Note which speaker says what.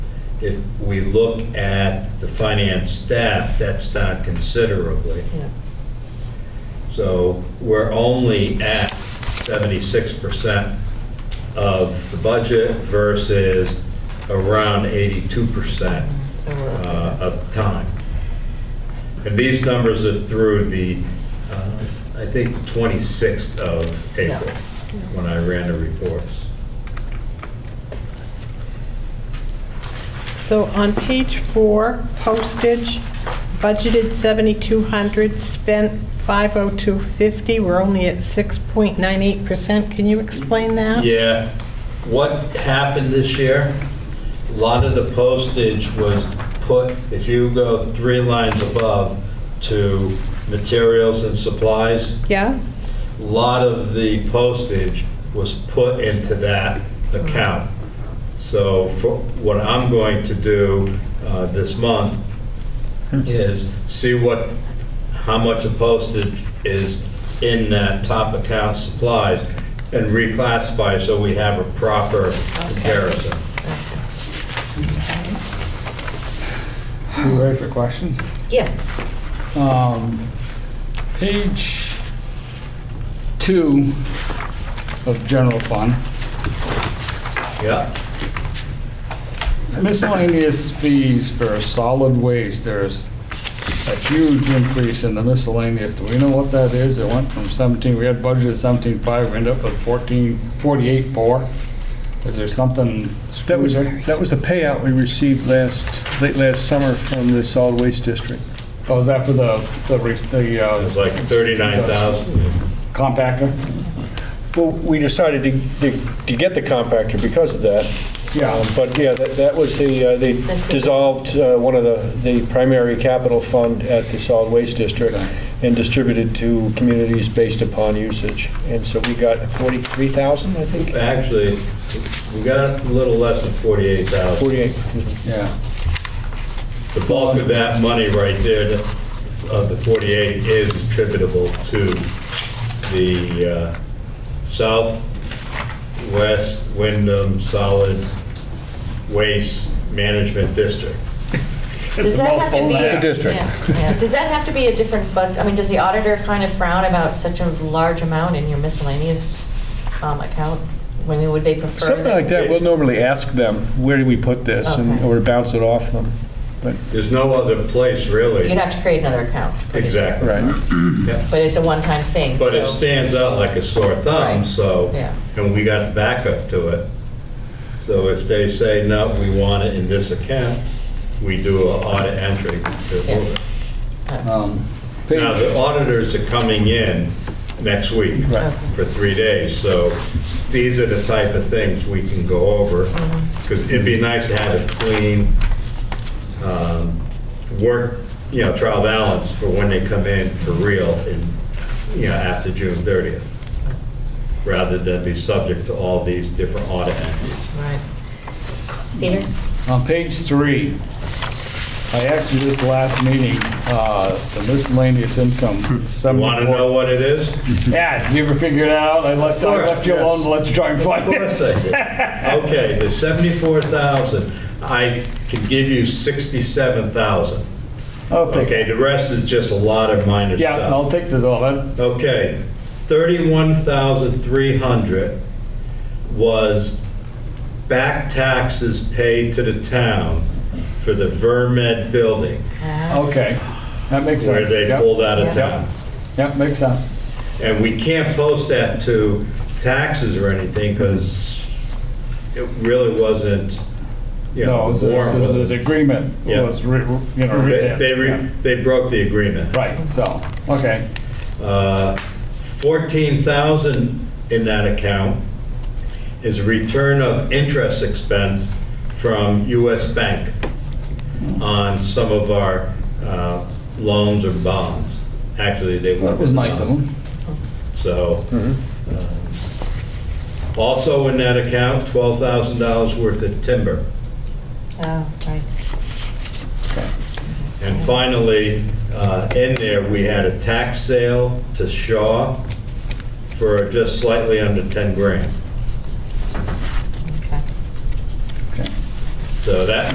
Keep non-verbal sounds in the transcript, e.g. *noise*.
Speaker 1: if we look at the finance staff, that's down considerably.
Speaker 2: Yeah.
Speaker 1: So we're only at 76% of the budget versus around 82% uh, of time. And these numbers are through the, uh, I think, the 26th of
Speaker 2: Yeah.
Speaker 1: April, when I ran the reports.
Speaker 2: So on page four, postage, budgeted 7,200, spent 50250, we're only at 6.98%. Can you explain that?
Speaker 1: Yeah, what happened this year, a lot of the postage was put, if you go three lines above, to materials and supplies,
Speaker 2: Yeah?
Speaker 1: a lot of the postage was put into that account. So for, what I'm going to do uh, this month is see what, how much of postage is in that top account supplies and reclassify so we have a proper comparison.
Speaker 3: You ready for questions?
Speaker 4: Yeah.
Speaker 3: Um, Page two of general fund,
Speaker 1: Yeah,
Speaker 3: miscellaneous fees for solid waste, there's a huge increase in the miscellaneous. Do we know what that is? It went from 17, we had budgeted 17.5, we ended up with 14, 48.4. Is there something
Speaker 5: That
Speaker 3: screwed
Speaker 5: was,
Speaker 3: there?
Speaker 5: that was the payout we received last, late last summer from the solid waste district.
Speaker 3: Oh, is that for the, the re- the
Speaker 1: it
Speaker 3: uh,
Speaker 1: was like 39,000.
Speaker 3: compactor?
Speaker 5: Well, we decided to, to- to get the compactor because of that.
Speaker 3: Yeah.
Speaker 5: Um, But yeah, that, that was the, uh, they
Speaker 4: That's it.
Speaker 5: dissolved uh, one of the, the primary capital fund at the solid waste district
Speaker 3: Okay.
Speaker 5: and distributed to communities based upon usage. And so we got 43,000, I think,
Speaker 1: Actually, we got a little less than 48,000.
Speaker 5: 48.
Speaker 3: Yeah.
Speaker 1: The bulk of that money right there, of the 48, is attributable to the uh, Southwest Wyndham Solid Waste Management District.
Speaker 4: Does that have to be?
Speaker 3: mouthful, that.
Speaker 5: District.
Speaker 4: Yeah, yeah. Does that have to be a different, but, I mean, does the auditor kind of frown about such a large amount in your miscellaneous um, account? When would they prefer?
Speaker 5: Something like that, we'll normally ask them, where do we put this? and
Speaker 4: Okay.
Speaker 5: Or bounce it off them. But,
Speaker 1: There's no other place,
Speaker 4: You'd
Speaker 1: really.
Speaker 4: have to create another account.
Speaker 1: Exactly.
Speaker 5: right.
Speaker 4: But it's a one-time thing.
Speaker 1: But it
Speaker 4: so-
Speaker 1: stands out like a sore thumb,
Speaker 4: Right.
Speaker 1: so,
Speaker 4: Yeah.
Speaker 1: and we got the backup to it. So if they say, no, we want it in this account, we do an audit entry to
Speaker 4: Yeah.
Speaker 1: hold it.
Speaker 3: Um,
Speaker 1: Now,
Speaker 3: Page,
Speaker 1: the auditors are coming in next week
Speaker 3: Right.
Speaker 1: for three days, so these are the type of things we can go over, because it'd be nice to have a clean um, work, you know, trial balance for when they come in for real in, you know, after June 30th, rather than be subject to all these different audit entries.
Speaker 4: Right. Peter?
Speaker 3: on page three, I asked you this last meeting, uh, the miscellaneous income,
Speaker 1: Want to Hmm. know
Speaker 3: 74.
Speaker 1: what it is?
Speaker 3: Yeah, you ever figured it out? I left, I
Speaker 1: course,
Speaker 3: left you alone to let you try
Speaker 1: *laughs*
Speaker 3: and
Speaker 1: Of
Speaker 3: *laughs* find
Speaker 1: course
Speaker 3: it.
Speaker 1: I did. Okay, the 74,000, I can give you 67,000.
Speaker 3: I'll take
Speaker 1: Okay,
Speaker 3: it.
Speaker 1: the rest is just a lot of minor
Speaker 3: Yeah,
Speaker 1: stuff.
Speaker 3: I'll take the dollar.
Speaker 1: Okay, 31,300 was back taxes paid to the town for the Vermed building,
Speaker 3: Okay, that makes
Speaker 1: where
Speaker 3: sense.
Speaker 1: they
Speaker 3: Yep.
Speaker 1: pulled out of
Speaker 4: Yeah.
Speaker 1: town.
Speaker 3: Yep, makes sense.
Speaker 1: And we can't post that to taxes or anything because it really wasn't, you
Speaker 3: No,
Speaker 1: know,
Speaker 3: it was
Speaker 1: the
Speaker 3: a- it
Speaker 1: warrant
Speaker 3: was
Speaker 1: wasn't.
Speaker 3: an agreement, It
Speaker 1: Yeah.
Speaker 3: was, re- re- you know.
Speaker 1: They,
Speaker 3: written.
Speaker 1: they
Speaker 3: Yeah.
Speaker 1: re- they broke the agreement.
Speaker 3: Right, so, okay,
Speaker 1: Uh, 14,000 in that account is return of interest expense from US Bank on some of our uh, loans or bonds. Actually, they were.
Speaker 3: that was nice of them.
Speaker 1: So, um, also in that account, $12,000 worth of timber.
Speaker 4: Oh, right.
Speaker 1: And finally, uh, in there, we had a tax sale to Shaw for just slightly under 10 grand.
Speaker 4: Okay.
Speaker 3: Okay.
Speaker 1: So that